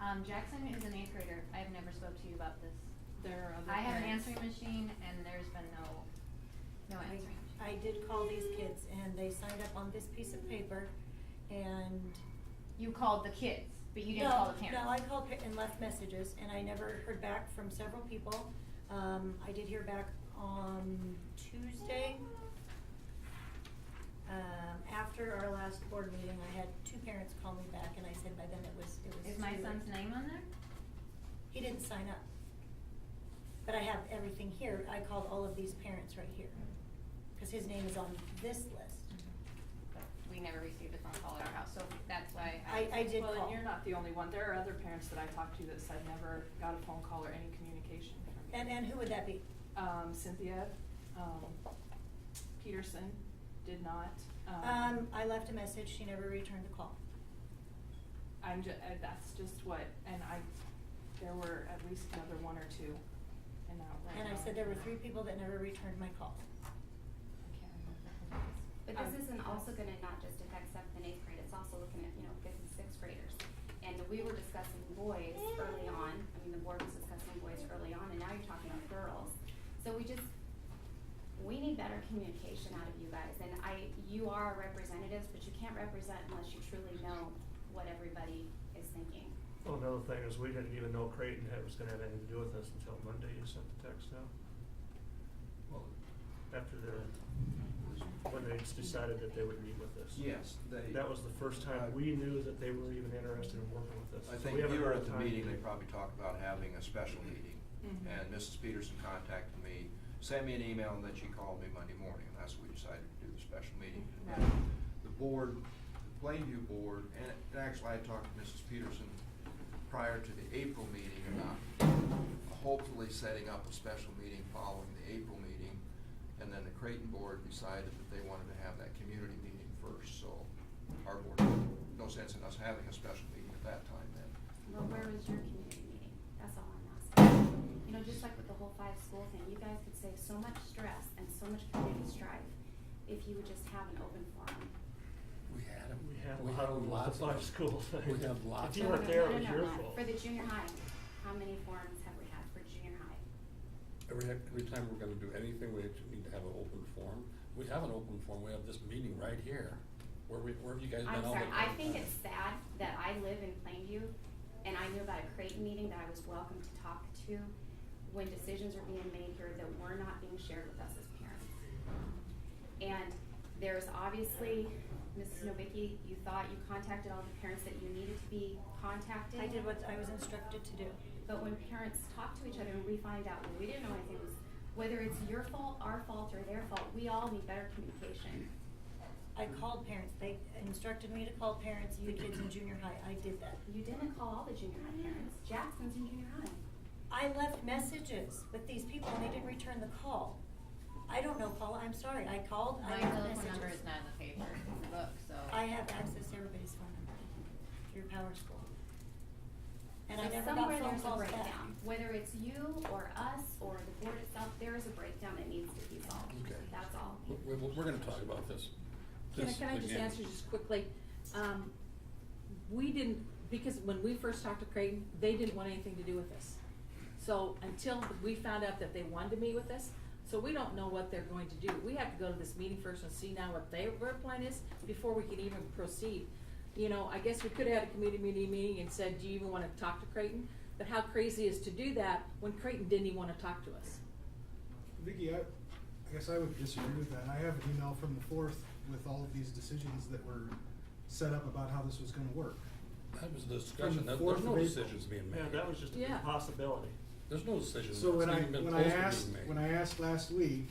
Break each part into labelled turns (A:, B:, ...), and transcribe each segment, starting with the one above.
A: Um, Jackson is an eighth grader. I've never spoke to you about this.
B: There are other
A: I have an
B: parents.
A: answering machine and there's been no, no
C: I-
A: answering. machine.
C: I did call these kids and they signed up on this piece of paper and.
A: You called the kids, but you didn't
C: No,
A: call the parents.
C: No, I called pa- and left messages and I never heard back from several people. Um, I did hear back on Tuesday. Um, after our last board meeting, I had two parents call me back and I said by then it was, it was.
A: Is my
C: too
A: son's
C: late.
A: name on there?
C: He didn't sign up. But I have everything here. I called all of these parents right here. Cause his name is on this list.
A: We never received a phone call at our house, so that's why I.
C: I, I did call.
B: Well, and you're not the only one. There are other parents that I talked to that said never got a phone call or any communication from you.
C: And, and who would that be?
B: Um, Cynthia, um, Peterson did not.
C: Um, I left a message, she never returned the call.
B: I'm ju- uh, that's just what, and I, there were at least another one or two in that right
C: And I
B: now.
C: said there were three people that never returned my call.
D: But
B: Um,
D: this isn't also gonna not just affect seventh and eighth grade, it's also looking at, you know, fifth and sixth graders. And we were discussing boys early on, I mean, the board was discussing boys early on, and now you're talking about girls. So we just, we need better communication out of you guys, and I, you are our representatives, but you can't represent unless you truly know what everybody is thinking.
E: Well, another thing is, we didn't even know Creighton had, was gonna have anything to do with this until Monday, you sent the text out.
F: Well,
E: After the, when they decided that they would meet with us.
F: yes, they. Uh,
E: That was the first time we knew that they were even interested in working with us.
F: I
E: So
F: think
E: we
F: you
E: haven't
F: were
E: had
F: at the
E: time-
F: meeting, they probably talked about having a special meeting.
B: Mhm.
F: And Mrs. Peterson contacted me, sent me an email, and then she called me Monday morning, and that's when we decided to do the special meeting.
B: Right.
F: The board, the Plainview Board, and and actually I talked to Mrs. Peterson prior to the April meeting about hopefully setting up a special meeting following the April meeting. And then the Creighton Board decided that they wanted to have that community meeting first, so our board, no sense in us having a special meeting at that time then.
D: But where was your community meeting? That's all I'm asking. You know, just like with the whole five school thing, you guys could save so much stress and so much community strife if you would just have an open forum.
G: We had them.
E: We had
G: We
E: a lot
G: had
E: of
G: lots of
E: supply
G: them.
E: school thing.
G: We had lots
E: If you
G: of
E: weren't
G: them.
E: there,
D: No,
E: it
D: no,
E: was
D: no,
E: your
D: not-
E: fault.
D: For the junior high, how many forums have we had for junior high?
G: Every, every time we're gonna do anything, we actually need to have an open forum. We have an open forum, we have this meeting right here. Where we, where have you guys been all
D: I'm
G: the
D: sorry, I
G: time?
D: think it's sad that I live in Plainview and I knew about a Creighton meeting that I was welcome to talk to when decisions are being made here that were not being shared with us as parents. And there's obviously, Mrs. Novicki, you thought you contacted all the parents that you needed to be contacted.
C: I did what I was instructed to do.
D: But when parents talk to each other and we find out, well, we didn't know anything, was whether it's your fault, our fault, or their fault, we all need better communication.
C: I called parents, they instructed me to call parents, you kids in junior high, I did that.
D: You didn't call all the junior high parents. Jackson's in junior high.
C: I left messages with these people and they didn't return the call. I don't know, Paula, I'm sorry, I called, I
A: My
C: left
A: telephone
C: messages.
A: number is not in the paper, in the book, so.
C: I have access to everybody's phone number through Power School. And I
D: So
C: never got
D: Somewhere
C: phone
D: there's a
C: calls back.
D: breakdown, whether it's you or us or the board itself, there is a breakdown that needs to be solved.
G: Okay.
D: That's all.
G: We're, we're, we're gonna talk about this.
H: Can I,
G: This
H: can I just
G: again.
H: answer just quickly? Um, we didn't, because when we first talked to Creighton, they didn't want anything to do with us. So until we found out that they wanted to meet with us, so we don't know what they're going to do. We have to go to this meeting first and see now what their, their plan is before we can even proceed. You know, I guess we could have had a committee meeting, meeting and said, do you even wanna talk to Creighton? But how crazy is to do that when Creighton didn't even wanna talk to us?
I: Vicki, I, I guess I would disagree with that. I have an email from the fourth with all of these decisions that were set up about how this was gonna work.
G: That was the discussion, There-
I: fourth
G: there's no
I: of April.
G: decisions being made.
E: Yeah, that was just a
H: Yeah.
E: possibility.
G: There's no decisions.
I: So when
G: It's
I: I,
G: even been
I: when I
G: close to being
I: asked,
G: made.
I: when I asked last week,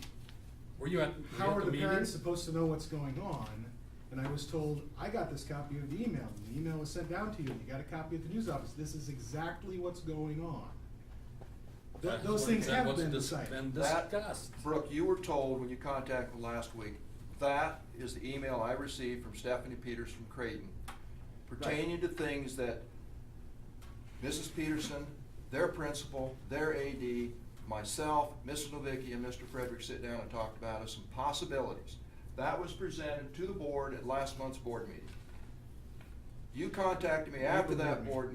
G: Were you at, were you
I: how
G: at
I: are the
G: meeting?
I: parents supposed to know what's going on? And I was told, I got this copy of the email, and the email was sent down to you, and you got a copy at the news office. This is exactly what's going on. Th-
G: That's
I: Those
G: what-
I: things
G: that
I: have
G: was
I: been
G: dis-
I: decided.
G: Been
F: That-
G: discussed.
F: Brooke, you were told when you contacted last week, that is the email I received from Stephanie Peters from Creighton pertaining to things that Mrs. Peterson, their principal, their AD, myself, Mrs. Novicki, and Mr. Frederick sit down and talked about as some possibilities. That was presented to the board at last month's board meeting. You contacted me after that board